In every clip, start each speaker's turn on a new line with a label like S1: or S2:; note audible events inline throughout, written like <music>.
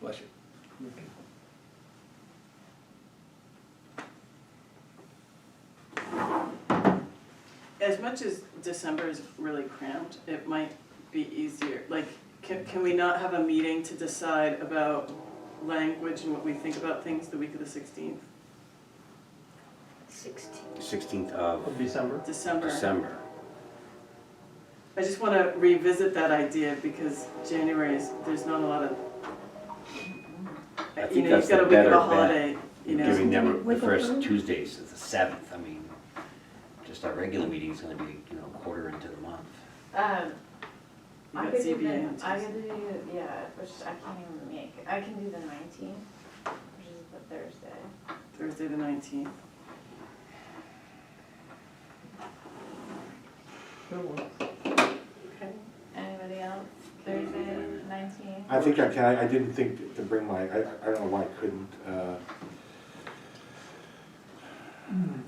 S1: Bless you.
S2: As much as December is really cramped, it might be easier, like, can, can we not have a meeting to decide about language and what we think about things the week of the sixteenth,
S3: Sixteen.
S4: 16th of
S5: of December.
S2: December?
S4: December.
S2: I just wanna revisit that idea because January is, there's not a lot of,
S4: I
S2: you
S4: think
S2: know, you've
S4: that's the
S2: got a week of
S4: better
S2: a
S4: bet.
S2: holiday, you know?
S4: Giving them the
S3: Wiggle
S4: first
S3: room.
S4: Tuesdays, it's the 7th, I mean, just our regular meeting's gonna be, you know, quarter into the month.
S6: Um,
S2: You
S6: I
S2: got
S6: could do
S2: ZBA on
S6: the, I
S2: Tuesday.
S6: could do, yeah, which I can't even make, I can do the nineteenth, which is the Thursday.
S2: Thursday the nineteenth.
S6: Okay. Anybody else, Thursday nineteenth?
S7: I think I can, I I didn't think to bring my, I, I don't know why I couldn't, uh,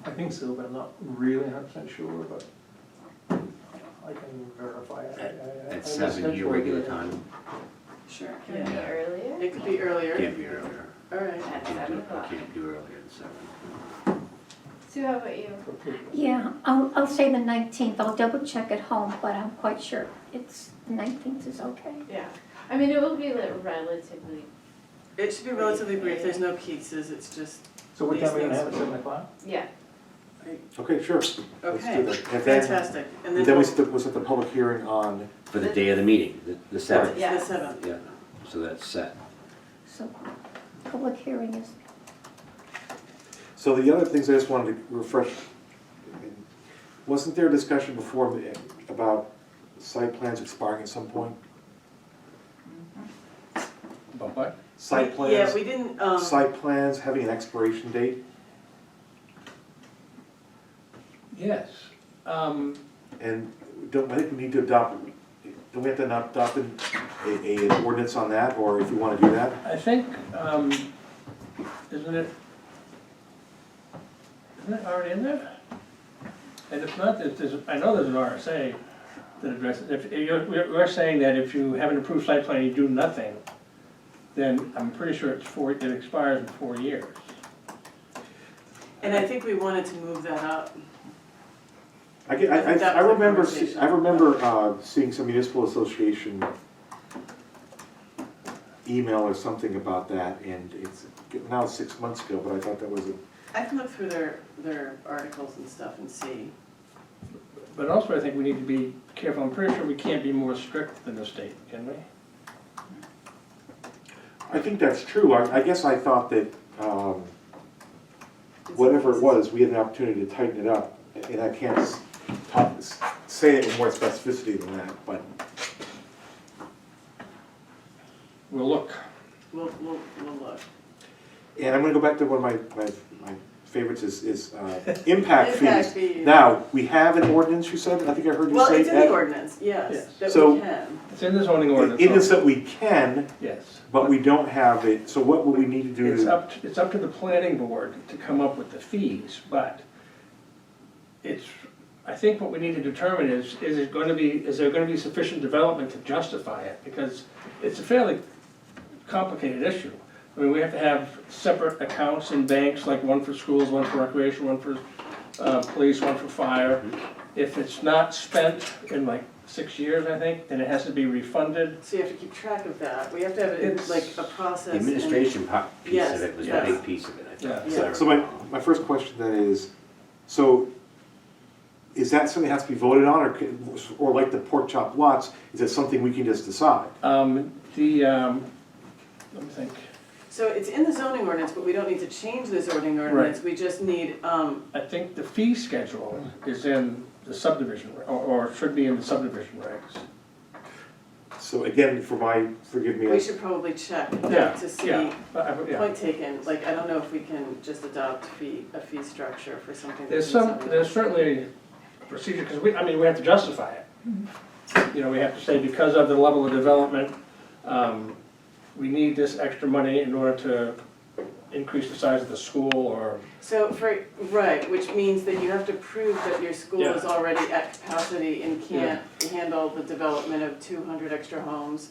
S5: I think so, but I'm not really hundred percent sure, but I can verify. it.
S4: At-
S5: I- I- I
S4: At 7,
S5: schedule
S4: your
S5: it.
S4: regular time,
S2: Sure,
S6: Can it
S2: yeah.
S6: be earlier?
S2: It could be earlier,
S4: can't be earlier.
S2: all right.
S6: At
S4: Can't
S6: seven
S4: do,
S6: o'clock.
S4: can't do earlier than 7.
S6: Sue, how about you?
S5: Okay.
S3: Yeah, I'll, I'll say the nineteenth, I'll double check at home, but I'm quite sure it's, the nineteenth is okay.
S6: Yeah, I mean, it will be like relatively,
S2: It should be relatively brief, there's no pieces, it's just,
S5: So what time are we gonna have at seven o'clock?
S6: yeah,
S7: okay, sure. Let's do
S2: okay,
S7: that. And then,
S2: fantastic. And
S7: and
S2: then
S7: then
S2: we'll-
S7: we
S2: it's
S7: set, the- we'll set the public hearing on,
S4: For the day of the meeting, the- the 7th.
S2: the
S6: Yeah.
S2: seventh.
S4: Yeah, so that's set.
S3: So, public hearing is,
S7: so the other things I just wanted to refresh. I mean, Wasn't there a discussion before the- about site plans expiring at some point?
S1: About what?
S7: Site
S2: We- Yeah,
S7: plans,
S2: we didn't, um,
S7: site plans having an expiration date,
S1: Yes. Um,
S7: and don't, I think we need to adopt, don't we have to not adopt an, a, a ordinance on that, or if you wanna do that?
S1: I think, um, isn't it, isn't it already in there? And if not, there's- there's, I know there's an RSA that addresses, if, if you're, we're we're saying that if you have an approved site plan, you do nothing, then I'm pretty sure it's four, it expires in four years.
S2: and I think we wanted to move that up.
S7: I get, I, I,
S2: That
S7: I
S2: was the
S7: remember,
S2: conversation.
S7: se- I remember, uh, seeing some municipal association email or something about that, and it's, now it's six months ago, but I thought that was a
S2: I can look through their, their articles and stuff and see.
S1: But also, I think we need to be careful, I'm pretty sure we can't be more strict than the state, can we?
S7: I think that's true, I, I guess I thought that, um, whatever it was, we had an opportunity to tighten it up, and I can't s- talk, s- say it with more specificity than that, but
S1: We'll look.
S2: We'll, we'll, we'll look.
S7: And I'm gonna go back to one of my, my, my favorites is,
S2: <laughs>
S7: is, uh, impact
S2: Impact
S7: fees.
S2: fees.
S7: Now, we have an ordinance, you said, I think I heard you say.
S2: Well, it's in the
S7: that-
S2: ordinance, yes,
S1: Yes.
S2: that we
S7: So-
S2: can.
S1: It's in the zoning ordinance.
S7: It is that we can,
S1: Yes.
S7: but we don't have it, so what would we need to do
S1: It's
S7: to?
S1: up, it's up to the planning board to come up with the fees, but it's, I think what we need to determine is, is it gonna be, is there gonna be sufficient development to justify it? Because it's a fairly complicated issue. I mean, we have to have separate accounts in banks, like one for schools, one for recreation, one for, uh, police, one for fire. If it's not spent in like six years, I think, then it has to be refunded.
S2: So you have to keep track of that. We have to have it in
S1: It's-
S2: like a process.
S4: The
S2: and-
S4: administration part, piece
S2: Yes,
S4: of it was the
S2: yes.
S4: big piece of it, I
S1: Yeah.
S4: thought. as I
S2: Yeah.
S7: So my,
S4: recall.
S7: my first question then is, so is that something that has to be voted on, or, could- or like the pork chop lots, is that something we can just decide?
S1: Um, the, um, let me think.
S2: So it's in the zoning ordinance, but we don't need to change the zoning ordinance. We just need, um,
S1: I think the fee schedule is in the subdivision, or, or should be in the subdivision regs.
S7: So again, for my, forgive me,
S2: we should probably check
S1: Yeah,
S2: that to see.
S1: yeah, but I- yeah.
S2: Point taken, like, I don't know if we can just adopt fee, a fee structure for something. that's
S1: There's
S2: in
S1: some,
S2: zoning.
S1: there's certainly procedure, because we, I mean, we have to justify it.
S2: Mm-hmm.
S1: You know, we have to say because of the level of development, um, we need this extra money in order to increase the size of the school or,
S2: So for, right, which means that you have to prove that your school
S1: Yeah.
S2: is already at capacity and can't handle the development of two hundred extra homes.